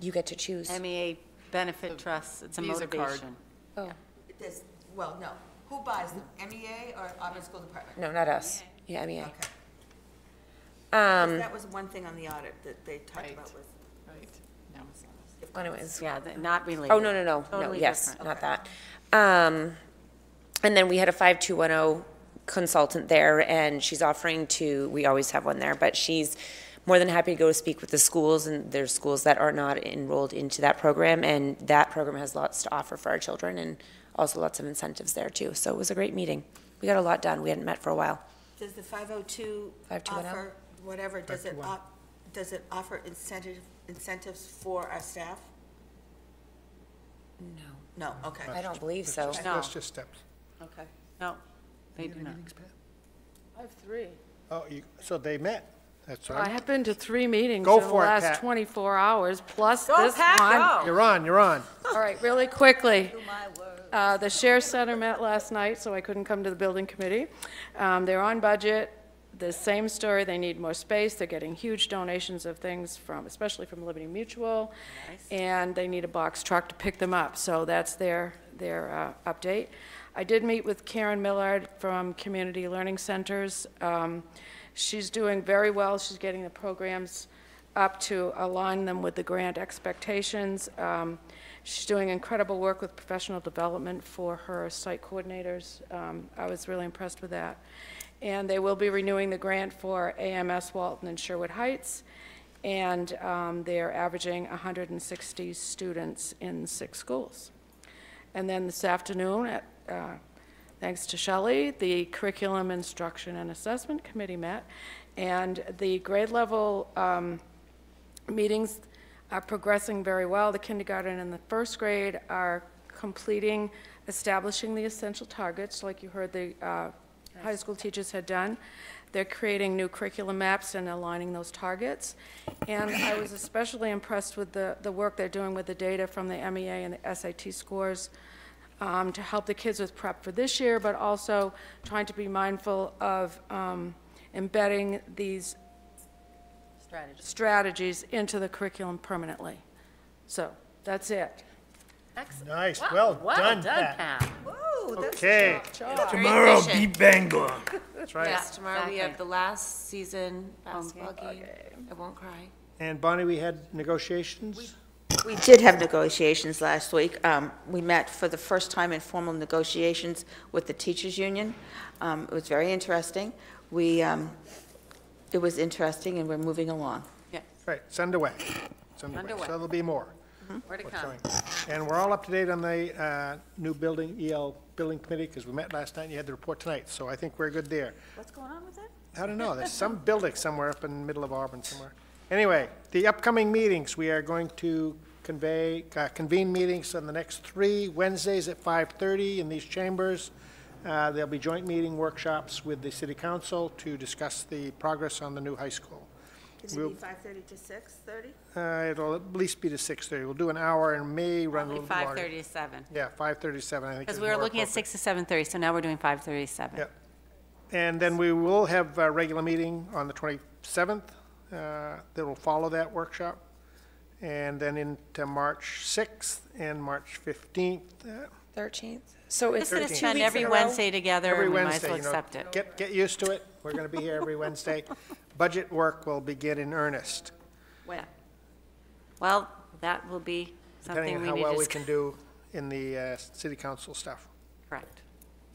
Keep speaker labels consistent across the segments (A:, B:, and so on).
A: You get to choose.
B: MEA E benefit trusts, it's a
C: Visa card.
B: motivation.
A: Oh,
D: This, well, no, who buys them, MEA or Auburn School Department?
A: no, not us.
B: E
A: Yeah, E MEA.
D: Okay. 'Cause
A: Um,
D: That was one thing on the audit that they talked
C: Right.
D: about was.
C: Right, no.
D: if-
A: Um, anyways,
B: Yeah, th- not related.
A: oh, no, no, no, no,
B: Totally
A: yes, not
B: different.
A: that. Um, and then we had a 5210 consultant there, and she's offering to, we always have one there, but she's more than happy to go speak with the schools, and there's schools that are not enrolled into that program, and that program has lots to offer for our children, and also lots of incentives there, too. So it was a great meeting. We got a lot done. We hadn't met for a while.
D: Does the 502
A: 521?
D: offer, whatever, does it, op- does it offer incentive, incentives for our staff?
A: No.
D: No, okay.
A: I don't believe
E: That's
A: so.
E: just-
B: No.
E: That's just steps.
D: Okay.
B: No, they do not.
E: Meetings, Pat?
F: I have three.
E: Oh, you, so they met, that's
F: Oh, I
E: right.
F: have been to three meetings
E: Go
F: in the
E: for it,
F: last
E: Pat.
F: 24 hours, plus
B: Go,
F: this
B: Pat,
F: one.
E: You're on, you're on.
F: All right, really quickly. Uh, The Share Center met last night, so I couldn't come to the building committee. Um, They're on budget, the same story, they need more space, they're getting huge donations of things from, especially from Liberty Mutual, and they need a box truck to pick them up, so that's their, their uh, update. I did meet with Karen Millard from Community Learning Centers. Um, She's doing very well, she's getting the programs up to align them with the grant expectations. Um, She's doing incredible work with professional development for her site coordinators. Um, I was really impressed with that. And they will be renewing the grant for AMS Walton and Sherwood Heights, and um, they're averaging 160 students in six schools. And then this afternoon, at, uh, thanks to Shelley, the Curriculum Instruction and Assessment Committee met, and the grade level um, meetings are progressing very well. The kindergarten and the first grade are completing establishing the essential targets, like you heard the uh, high school teachers had done. They're creating new curriculum maps and aligning those targets. And I was especially impressed with the, the work they're doing with the data from the MEA and the SAT scores um, to help the kids with prep for this year, but also trying to be mindful of um, embedding these
B: Strategy.
F: strategies into the curriculum permanently. So, that's it.
B: Excellent.
E: Nice,
B: Wow,
E: well
B: Well
E: done,
B: done,
E: Pat.
B: Pat.
E: Okay,
G: Tomorrow, beat Bangor.
E: that's right.
B: Yeah,
H: Yes, tomorrow we
B: exactly.
H: have the last season basketball
B: Basketball
H: game. I won't cry.
E: And Bonnie, we had negotiations?
D: We did have negotiations last week. Um, We met for the first time in formal negotiations with the teachers' union. Um, It was very interesting. We, um, it was interesting, and we're moving along.
E: Right, it's underway. It's underway, so
B: Underway.
E: there'll be more.
B: Where to
E: What's
B: come?
E: coming. And we're all up to date on the uh, new building, EL Building Committee, because we met last night, and you had the report tonight, so I think we're good there.
B: What's going on with that?
E: I don't know, there's some building somewhere up in the middle of Auburn somewhere. Anyway, the upcoming meetings, we are going to convey, uh, convene meetings on the next three Wednesdays at 5:30 in these chambers. Uh, There'll be joint meeting workshops with the city council to discuss the progress on the new high school.
D: Is it
E: We'll-
D: 5:30 to 6:30?
E: Uh, It'll at least be to 6:30. We'll do an hour and may run a
B: Probably
E: little bit longer.
B: 5:30 to 7.
E: Yeah, 5:37, I think.
B: Because
E: is
B: we were
E: more
B: looking at
E: appropriate.
B: 6 to 7:30, so now we're doing 5:30 to 7.
E: Yep. And then we will have a regular meeting on the 27th uh, that will follow that workshop. And then into March 6th and March 15th. uh,
A: 13th? So it's
B: Just going to
A: two
B: spend
A: weeks in
B: every
A: a row?
B: Wednesday together,
E: Every
B: and we might as
E: Wednesday,
B: well
E: you know,
B: accept it.
E: get, get used to it. We're going to be here every Wednesday. Budget work will begin in earnest,
B: Well, that will be something
E: depending on
B: we
E: how
B: need
E: well
B: to,
E: we
B: dis-
E: can do in the uh, city council stuff.
B: correct.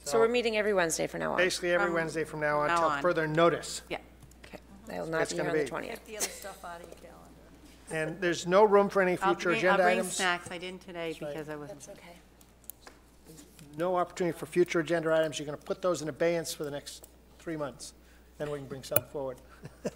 A: So we're meeting every Wednesday from now on.
E: Basically, every Wednesday from now on
B: now
E: till
B: on.
E: further notice.
B: Yeah.
A: Okay. I will not
E: It's
A: be here
E: gonna
A: on the
E: be.
A: 20th.
H: the other stuff out of your calendar.
E: And there's no room for any
B: I'll
E: future
B: bring-
E: agenda
B: I'll bring
E: items.
B: snacks. I didn't today because I wasn't.
H: okay.
E: no opportunity for future agenda items, you're going to put those in abeyance for the next three months, then we can bring some forward.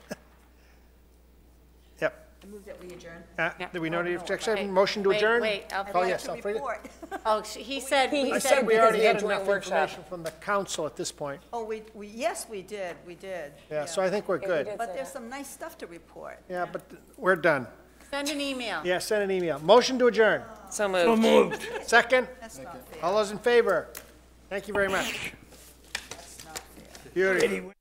E: Yep.
D: I move that we adjourn.
E: Uh,
B: Yeah.
E: Do we know any objection?
B: Wait,
E: Motion to
B: wait,
E: adjourn?
B: wait, I'll
E: Oh,
B: forget
E: yes, I'll forget.
B: Oh, she- he said,
E: I
B: he
E: said
B: said,
E: we already
A: they
E: had
A: had joint
E: enough
A: workshop.
E: information from the council at this point.
I: Oh, we, we, yes, we did, we did.
E: Yeah, so I think we're good.
I: But there's some nice stuff to report.
E: Yeah, but we're done.
B: send an email.
E: Yeah, send an email. Motion to adjourn.
A: So
G: So
A: moved.
G: moved.
E: Second?
I: That's not fair.
E: All those in favor? Thank you very much. Beauty.